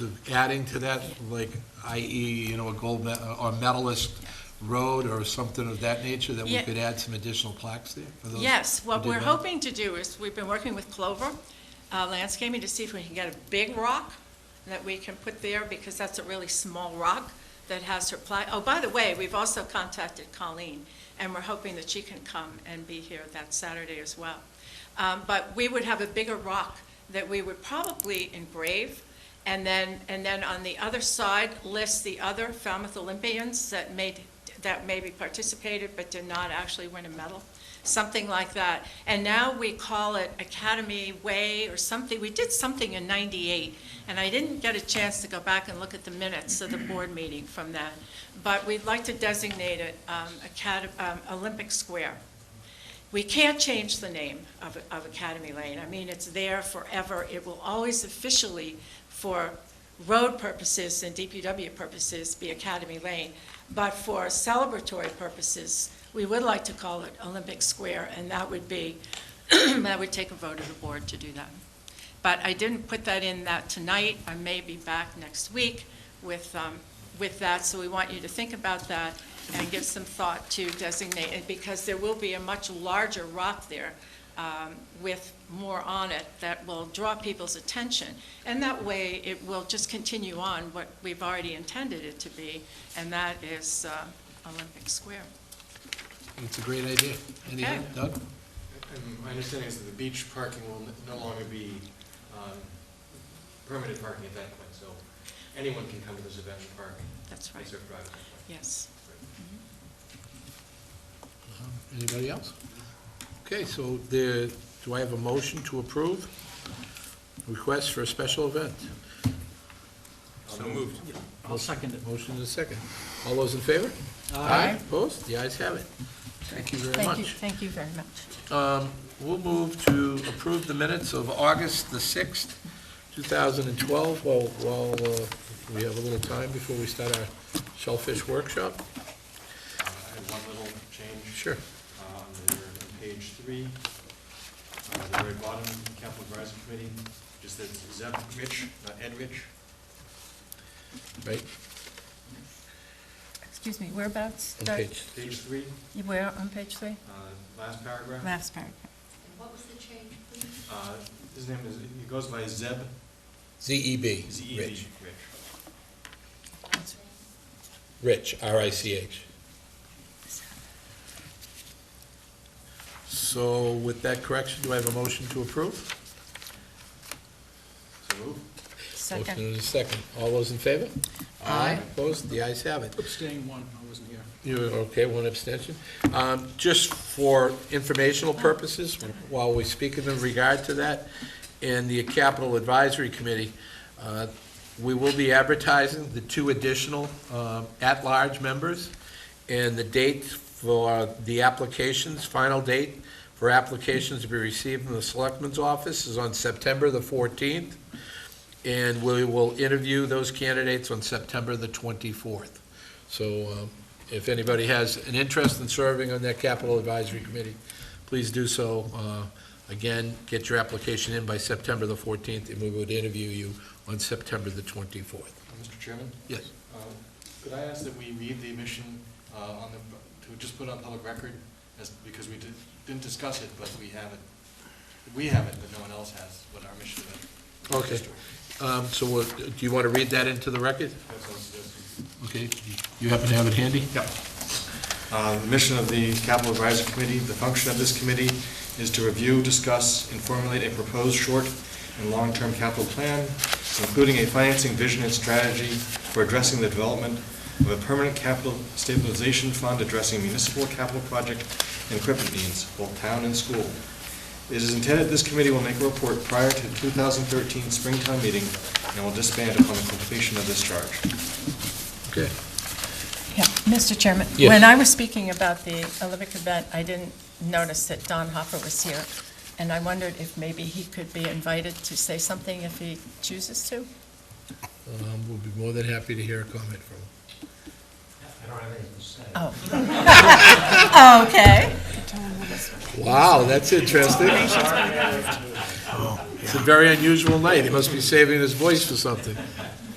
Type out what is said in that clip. of adding to that, like i.e., you know, a gold me- or medalist road or something of that nature, that we Yeah. could add some additional plaques there for those? Yes, what who did we're that? hoping to do is, we've been working with Clover uh, Landscaping to see if we can get a big rock that we can put there, because that's a really small rock that has her pla, oh, by the way, we've also contacted Colleen, and we're hoping that she can come and be here that Saturday as well. Um, But we would have a bigger rock that we would probably engrave, and then, and then on the other side, list the other Falmouth Olympians that made, that maybe participated but did not actually win a medal, something like that. And now we call it Academy Way or something. We did something in 98, and I didn't get a chance to go back and look at the minutes of the board meeting from that. But we'd like to designate it um, Acad- um, Olympic Square. We can't change the name of, of Academy Lane. I mean, it's there forever. It will always officially, for road purposes and DPW purposes, be Academy Lane. But for celebratory purposes, we would like to call it Olympic Square, and that would be, that would take a vote of the board to do that. But I didn't put that in that tonight. I may be back next week with, um, with that, so we want you to think about that and give some thought to designate it, because there will be a much larger rock there um, with more on it that will draw people's attention. And that way, it will just continue on what we've already intended it to be, and that is uh, Olympic Square. It's a great idea. Any, Okay. Doug? And My understanding is that the beach parking will n- no longer be um, permitted parking at that point, so anyone can come to this event and park. That's right, It's a private event. yes. Anybody else? Okay, so there, do I have a motion to approve? Request for a special event? So moved. I'll second it. Motion is second. All those in favor? Aye. Opposed? The ayes have it. Thank you very much. Thank you very much. Um, We'll move to approve the minutes of August the 6th, 2012, while, while uh, we have a little time before we start our shellfish workshop. Um, I have one little change. Sure. uh, On the- on page three, uh, the very bottom, capital advisory committee, just that Zeb Rich, not Ed Rich. Right, Excuse me, whereabouts? on Doug? page, Page three, You- Where, on page three? uh, last paragraph. Last paragraph. What was the change, please? Uh, His name is, he goes by Zeb, Z-E-B. Z-E-B, E Rich. Rich. Last name? Rich, R-I-C-H. So with that correction, do I have a motion to approve? So moved. Second. Motion is second. All those in favor? Aye. Opposed? The ayes have it. Abstain one, I wasn't here. You, okay, one abstention. Um, Just for informational purposes, while we speak in regard to that, in the Capital Advisory Committee, uh, we will be advertising the two additional um, at-large members, and the date for the applications, final date for applications to be received from the Selectmen's Office is on September the 14th, and we will interview those candidates on September the 24th. So um, if anybody has an interest in serving on that capital advisory committee, please do so. Uh, Again, get your application in by September the 14th, and we would interview you on September the 24th. Mr. Chairman? Yes. Uh, Could I ask that we read the omission uh, on the, to just put on public record, as, because we did- didn't discuss it, but we have it, we have it, but no one else has, what our mission Okay. is. Um, So we'll- do you want to read that into the record? That's what I'm suggesting. Okay. You happen to have it handy? Yep. Uh, The mission of the Capital Advisory Committee, the function of this committee is to review, discuss, and formulate a proposed short and long-term capital plan, including a financing vision and strategy for addressing the development of a permanent capital stabilization fund addressing municipal capital project and equipment needs, both town and school. It is intended this committee will make a report prior to 2013 Springtown meeting and will disband upon the completion of this charge. Okay. Yeah, Mr. Chairman? Yes. When I was speaking about the Olympic event, I didn't notice that Don Hopper was here, and I wondered if maybe he could be invited to say something if he chooses to? Um, We'll be more than happy to hear a comment from him. Oh. Oh, Okay. Wow, that's interesting. It's a very unusual night. He must be saving his voice for something.